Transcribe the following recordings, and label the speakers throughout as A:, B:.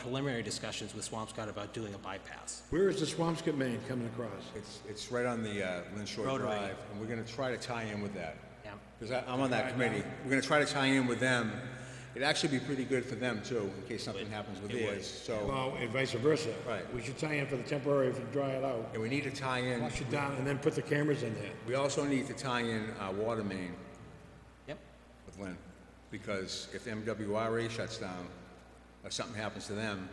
A: preliminary discussions with Swampscott about doing a bypass.
B: Where is the Swampscott main coming across?
C: It's, it's right on the uh, Lynn Shore
A: Rotary.
C: Drive, and we're gonna try to tie in with that.
A: Yeah.
C: Because I'm on that committee. We're gonna try to tie in with them. It'd actually be pretty good for them too, in case something happens with theirs, so.
B: Well, and vice versa.
C: Right.
B: We should tie in for the temporary if you dry it out,
C: And we need to tie in,
B: flush it down, and then put the cameras in there.
C: we also need to tie in our water main
A: Yep.
C: with Lynn. Because if MWRA shuts down, or something happens to them,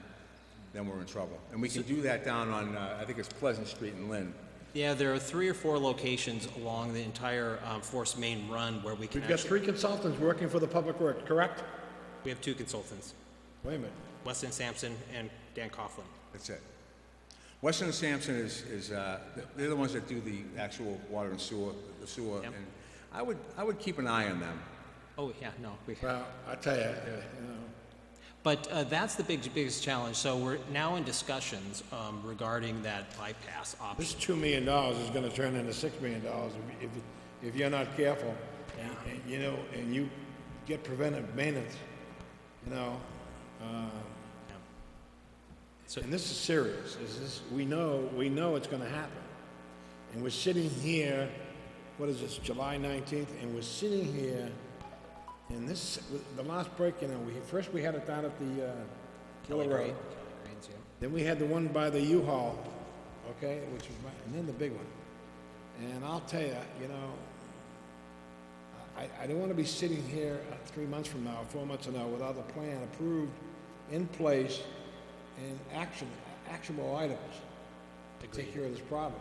C: then we're in trouble. And we can do that down on, uh, I think it's Pleasant Street in Lynn.
A: Yeah, there are three or four locations along the entire um, Force Main run where we can
B: We've got
A: actually,
B: three consultants working for the public work, correct?
A: we have two consultants,
B: Wait a minute.
A: Weston Sampson and Dan Coughlin.
C: That's it. Weston and Sampson is, is, uh, they're the ones that do the actual water and sewer, the sewer.
A: Yep.
C: And I would, I would keep an eye on them.
A: Oh, yeah, no, we,
B: Well, I tell you, uh, you know,
A: But uh, that's the big, biggest challenge. So we're now in discussions um, regarding that bypass
B: this
A: option.
B: two million dollars is gonna turn into six million dollars if, if- if you're not careful. And- and, You know, and you get preventive maintenance, you know? uh,
A: So-
B: And this is serious, is this, we know, we know it's gonna happen. And we're sitting here, what is this, July nineteenth, and we're sitting here, and this, the last break, you know, we, first we had it down at the, uh, Killer Road. Then we had the one by the U-Haul, okay, which was my, and then the big one. And I'll tell you, you know, I, I don't want to be sitting here uh, three months from now, four months from now, without a plan approved, in place, and action, actionable items to take care of this problem.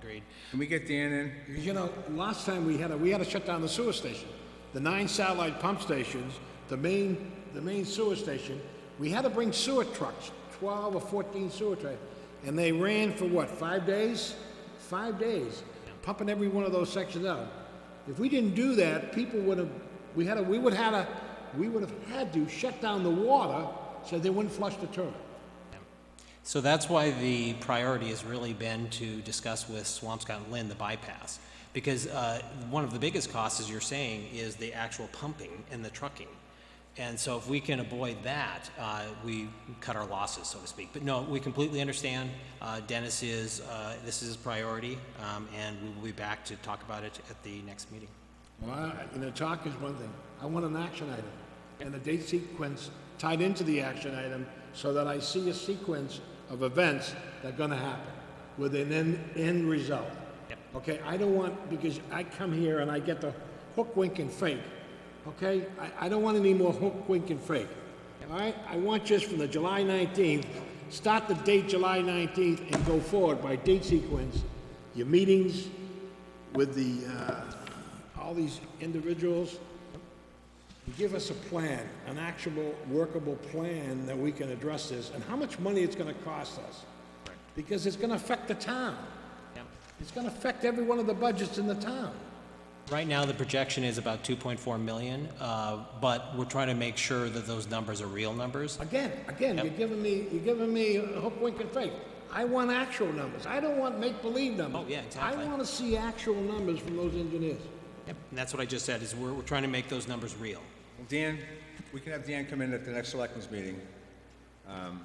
A: Agreed.
C: Can we get Dan in?
B: Because, you know, last time we had, a- we had to shut down the sewer station, the nine satellite pump stations, the main, the main sewer station. We had to bring sewer trucks, twelve or fourteen sewer trucks, and they ran for what, five days? Five days, pumping every one of those sections out. If we didn't do that, people would have, we had to, we would had to, we would have had to shut down the water so they wouldn't flush the toilet.
A: So that's why the priority has really been to discuss with Swampscott and Lynn the bypass. Because uh, one of the biggest costs, as you're saying, is the actual pumping and the trucking. And so if we can avoid that, uh, we cut our losses, so to speak. But no, we completely understand. Uh, Dennis is, uh, this is his priority, um, and we will be back to talk about it at the next meeting.
B: Well, I- you know, talk is one thing. I want an action item and a date sequence tied into the action item so that I see a sequence of events that are gonna happen with an end, end result. Okay, I don't want, because I come here and I get the hook, wink, and fake, okay? I, I don't want any more hook, wink, and fake. All right, I want just from the July nineteenth, start the date July nineteenth and go forward by date sequence, your meetings with the, uh, all these individuals. Give us a plan, an actual workable plan that we can address this, and how much money it's gonna cost us. Because it's gonna affect the town.
A: Yep.
B: It's gonna affect every one of the budgets in the town.
A: Right now, the projection is about 2.4 million, uh, but we're trying to make sure that those numbers are real numbers.
B: Again, again, you're giving me, you're giving me a hook, wink, and fake. I want actual numbers. I don't want make-believe numbers.
A: Oh, yeah, exactly.
B: I wanna see actual numbers from those engineers.
A: Yep, and that's what I just said, is we're, we're trying to make those numbers real.
C: Well, Dan, we can have Dan come in at the next selectmen's meeting. Um,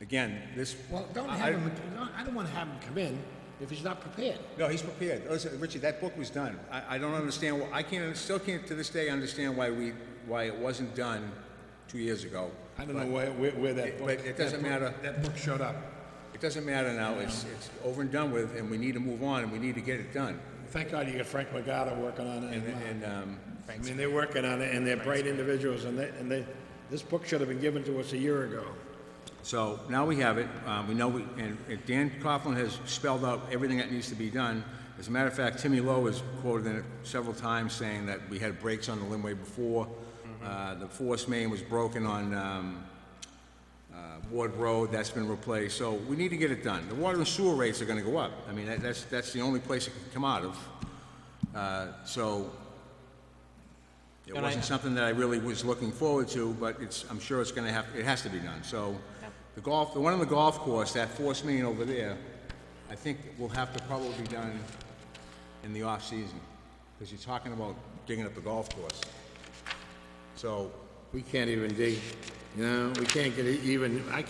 C: Again, this.
B: Well, don't
C: I-
B: have him, no, I don't wanna have him come in if he's not prepared.
C: No, he's prepared. Listen, Richie, that book was done. I, I don't understand, wh- I can't, still can't to this day understand why we, why it wasn't done two years ago.
B: I don't know where, where, where that
C: But-
B: book.
C: But it doesn't
B: that book-
C: matter.
B: That book showed up.
C: It doesn't matter now, it's, it's over and done with, and we need to move on, and we need to get it done.
B: Thank God you got Frank Magada working on it.
C: And,
B: and, uh,
C: and, um,
B: I mean, they're working on it and they're bright individuals and they, and they, this book should have been given to us a year ago.
C: so now we have it, um, we know, we- and and Dan Coughlin has spelled out everything that needs to be done. As a matter of fact, Timmy Lowe has quoted in it several times saying that we had breaks on the Linway before. Uh, the force main was broken on, um, uh, Ward Road, that's been replaced, so we need to get it done. The water and sewer rates are gonna go up. I mean, that- that's, that's the only place it can come out of. Uh, So, it
A: And I-
C: wasn't something that I really was looking forward to, but it's, I'm sure it's gonna have, it has to be done, so. The golf, the one on the golf course, that force main over there, I think will have to probably be done in the off-season, because you're talking about digging up the golf course. So,
B: We can't even dig, you know, we can't get even, I